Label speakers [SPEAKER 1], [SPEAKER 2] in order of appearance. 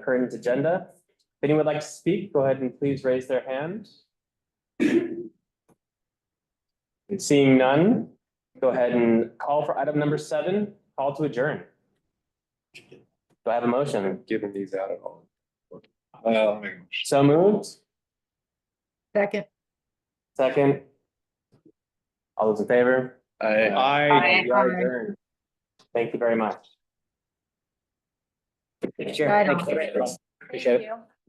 [SPEAKER 1] current agenda. If anyone would like to speak, go ahead and please raise their hand. And Seeing none, go ahead and call for item number seven, call to adjourn. Do I have a motion?
[SPEAKER 2] Giving these out at all. Well,
[SPEAKER 1] So moved,
[SPEAKER 3] Second.
[SPEAKER 1] second. All those in favor?
[SPEAKER 2] I.
[SPEAKER 3] Aye.
[SPEAKER 1] We are adjourned. Thank you very much.
[SPEAKER 3] Right on.
[SPEAKER 1] Appreciate it.